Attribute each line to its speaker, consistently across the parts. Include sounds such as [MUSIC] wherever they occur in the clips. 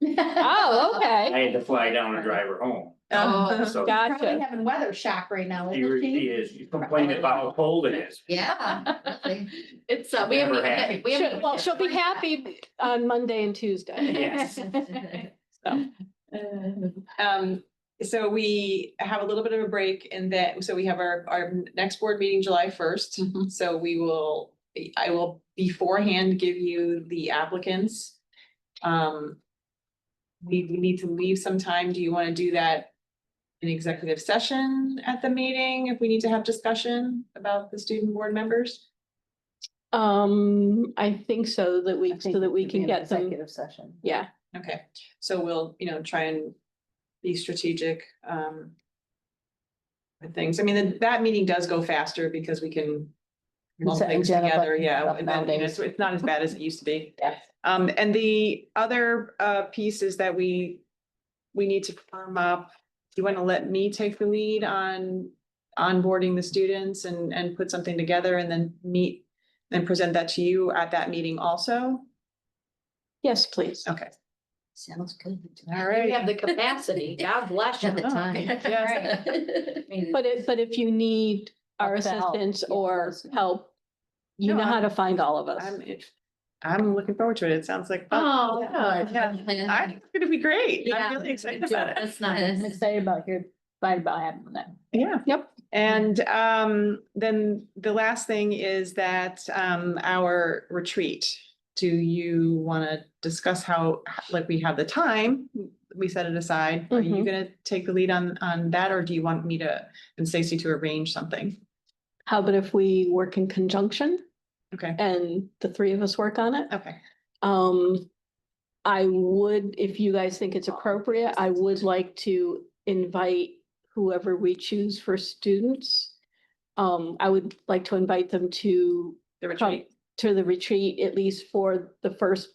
Speaker 1: [LAUGHS]
Speaker 2: Oh, okay.
Speaker 3: [LAUGHS]
Speaker 4: I had to fly down and drive her home,
Speaker 5: Um,
Speaker 2: Oh,
Speaker 4: so
Speaker 2: Gotcha.
Speaker 3: Probably having weather shock right now,
Speaker 4: she
Speaker 3: isn't
Speaker 4: re- she
Speaker 3: she?
Speaker 4: is, she complained about how cold it is. [LAUGHS]
Speaker 6: Yeah. really.
Speaker 1: It's, uh, we haven't,
Speaker 4: Never happy.
Speaker 1: we
Speaker 2: She'll-
Speaker 1: haven't.
Speaker 2: Well, she'll be happy on Monday and Tuesday.
Speaker 1: [LAUGHS]
Speaker 4: Yes.
Speaker 5: [LAUGHS] Um, so we have a little bit of a break in that, so we have our, our next board meeting July first.
Speaker 1: Mhm.
Speaker 5: So we will, I will beforehand give you the applicants. Um. We, we need to leave some time. Do you want to do that? in executive session at the meeting, if we need to have discussion about the student board members?
Speaker 2: Um, I think so that we,
Speaker 3: I
Speaker 2: so
Speaker 3: think
Speaker 2: that
Speaker 3: it
Speaker 2: we
Speaker 3: should
Speaker 2: can
Speaker 3: be an
Speaker 2: get them,
Speaker 3: Executive session.
Speaker 2: yeah.
Speaker 5: Okay, so we'll, you know, try and be strategic, um. With things, I mean, that- that meeting does go faster because we can lump
Speaker 3: Set
Speaker 5: things
Speaker 3: agenda
Speaker 5: together,
Speaker 3: buttons
Speaker 5: yeah,
Speaker 3: up
Speaker 5: and then, you know,
Speaker 3: nowadays.
Speaker 5: it's, it's not as bad as it used to be.
Speaker 3: Yes.
Speaker 5: Um, and the other, uh, piece is that we, we need to firm up, do you want to let me take the lead on onboarding the students and, and put something together and then meet and present that to you at that meeting also?
Speaker 2: Yes, please.
Speaker 5: Okay,
Speaker 6: Sounds good.
Speaker 5: all
Speaker 1: We
Speaker 5: right.
Speaker 1: have the capacity. God bless you.
Speaker 6: At the time.
Speaker 5: Yes.
Speaker 6: I
Speaker 1: [LAUGHS]
Speaker 6: mean,
Speaker 2: But if, but if you need our
Speaker 3: Help to help.
Speaker 2: assistance
Speaker 3: Yeah,
Speaker 2: or
Speaker 3: let's know.
Speaker 2: help, you
Speaker 5: No,
Speaker 2: know how
Speaker 5: I'm-
Speaker 2: to find all of us.
Speaker 5: I'm, it- I'm looking forward to it. It sounds like, fun.
Speaker 1: Oh, good.
Speaker 5: yeah, I think it's gonna be great.
Speaker 1: Yeah.
Speaker 5: I'm really excited about it.
Speaker 1: That's nice.
Speaker 3: excited about here, excited about having that.
Speaker 5: Yeah.
Speaker 2: Yep.
Speaker 5: And um, then the last thing is that um, our retreat. Do you want to discuss how, like, we have the time? We set it aside. Are you
Speaker 2: Mhm.
Speaker 5: gonna take the lead on, on that, or do you want me to, and Stacy to arrange something?
Speaker 2: How about if we work in conjunction
Speaker 5: Okay,
Speaker 2: and the three of us work on it?
Speaker 5: okay.
Speaker 2: Um, I would, if you guys think it's appropriate, I would like to invite whoever we choose for students. Um, I would like to invite them to
Speaker 5: The
Speaker 2: come
Speaker 5: retreat.
Speaker 2: To the retreat, at least for the first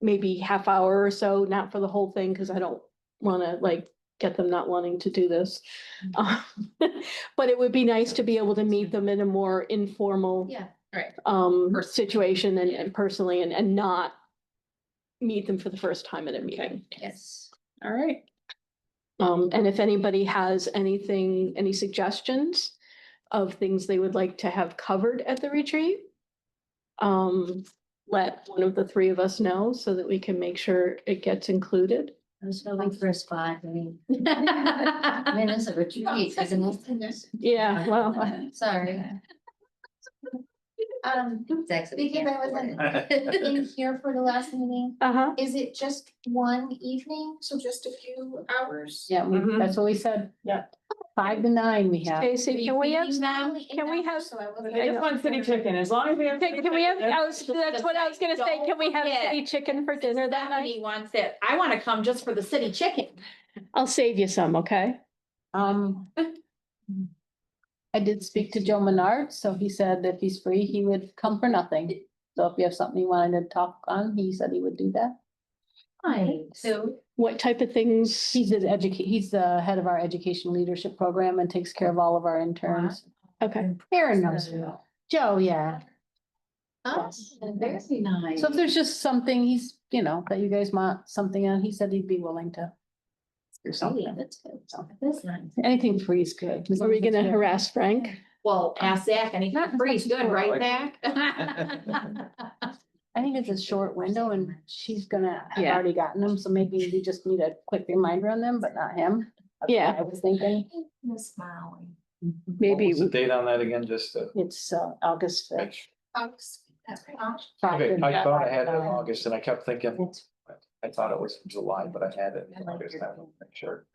Speaker 2: maybe half hour or so, not for the whole thing, because I don't want to like get them not wanting to do this. Um,
Speaker 5: Mm-hmm.
Speaker 2: [LAUGHS] But it would be nice to be able to meet them in a more informal
Speaker 6: Yeah.
Speaker 2: um,
Speaker 5: Person.
Speaker 2: situation and, and personally and, and not meet them for the first time at a meeting.
Speaker 6: Yes.
Speaker 5: All right.
Speaker 2: Um, and if anybody has anything, any suggestions of things they would like to have covered at the retreat, um, let one of the three of us know so that we can make sure it gets included.
Speaker 6: I was hoping for a spot, I mean. I mean, it's a retreat, isn't
Speaker 2: Yeah, well,
Speaker 6: it? Sorry.
Speaker 7: Um, because I wasn't
Speaker 2: [LAUGHS]
Speaker 7: in here for the last meeting,
Speaker 2: uh-huh.
Speaker 7: is it just one evening? So just a few hours?
Speaker 3: Yeah, we-
Speaker 5: Mhm.
Speaker 3: that's what we said. Yeah. Five to nine we have.
Speaker 2: Casey, can we have,
Speaker 7: Now,
Speaker 2: can we have-
Speaker 7: So I wasn't.
Speaker 2: I just
Speaker 5: want city chicken, as long as we have.
Speaker 2: can we have, I was- that's what I was gonna say. Can we have
Speaker 1: Don't forget.
Speaker 2: city chicken for dinner that night?
Speaker 1: Stephanie wants it. I want to come just for the city chicken.
Speaker 2: I'll save you some, okay?
Speaker 3: Um. I did speak to Joe Menard, so he said if he's free, he would come for nothing. So if you have something you wanted to talk on, he said he would do that.
Speaker 6: So,
Speaker 2: What type of things?
Speaker 3: He's the educate, he's the head of our education leadership program and takes care of all of our interns.
Speaker 2: Okay,
Speaker 3: Aaron knows. who. Joe, yeah.
Speaker 6: oh, very nice.
Speaker 3: So if there's just something he's, you know, that you guys want something on, he said he'd be willing to.
Speaker 6: Oh,
Speaker 2: Oh,
Speaker 3: Do
Speaker 6: Yeah,
Speaker 3: something.
Speaker 6: that's good. That's nice.
Speaker 3: Anything free is good.
Speaker 2: are we gonna harass Frank?
Speaker 1: Well, ask Zach and he's not free. He's good, right, Zach? [LAUGHS]
Speaker 3: I think it's a short window and she's gonna have
Speaker 2: Yeah.
Speaker 3: already gotten them, so maybe we just need a quick reminder on them, but not him. That's what
Speaker 2: Yeah.
Speaker 3: I was thinking
Speaker 7: Miss Molly.
Speaker 8: What
Speaker 2: Maybe,
Speaker 8: was the date on that again, just to
Speaker 3: it's uh August fifth.
Speaker 8: make sure?
Speaker 7: Folks, that's right.
Speaker 8: Okay, I thought I had it in August and I kept thinking, I thought it was July, but I had it in August, I don't make sure.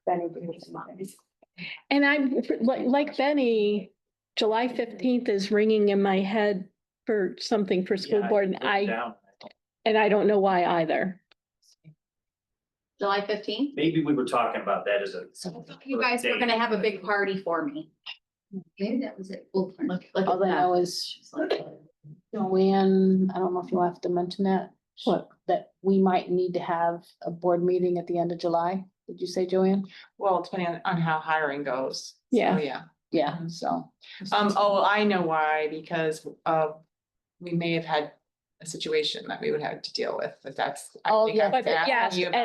Speaker 2: and I'm, like, like Benny, July fifteenth is ringing in my head for something for school
Speaker 4: Yeah,
Speaker 2: board and
Speaker 4: put it
Speaker 2: I,
Speaker 4: down.
Speaker 2: and I don't know why either.
Speaker 1: July fifteenth?
Speaker 4: Maybe we were talking about that as a.
Speaker 1: You guys were gonna have a big party for me.
Speaker 6: Maybe that was it. Well,
Speaker 1: Look, look at
Speaker 6: Oh,
Speaker 3: All I
Speaker 1: that.
Speaker 3: know is Joanne, I don't know if you'll have to mention that.
Speaker 2: What?
Speaker 3: That we might need to have a board meeting at the end of July. Did you say, Joanne?
Speaker 5: Well, depending on, on how hiring goes. So,
Speaker 2: Yeah.
Speaker 5: Yeah.
Speaker 3: Yeah, so.
Speaker 5: Um, oh, I know why, because uh, we may have had a situation that we would have to deal with, but that's. I
Speaker 3: Oh,
Speaker 5: think I
Speaker 3: yeah.
Speaker 5: was
Speaker 2: But- but
Speaker 5: asking
Speaker 2: yes,
Speaker 5: you about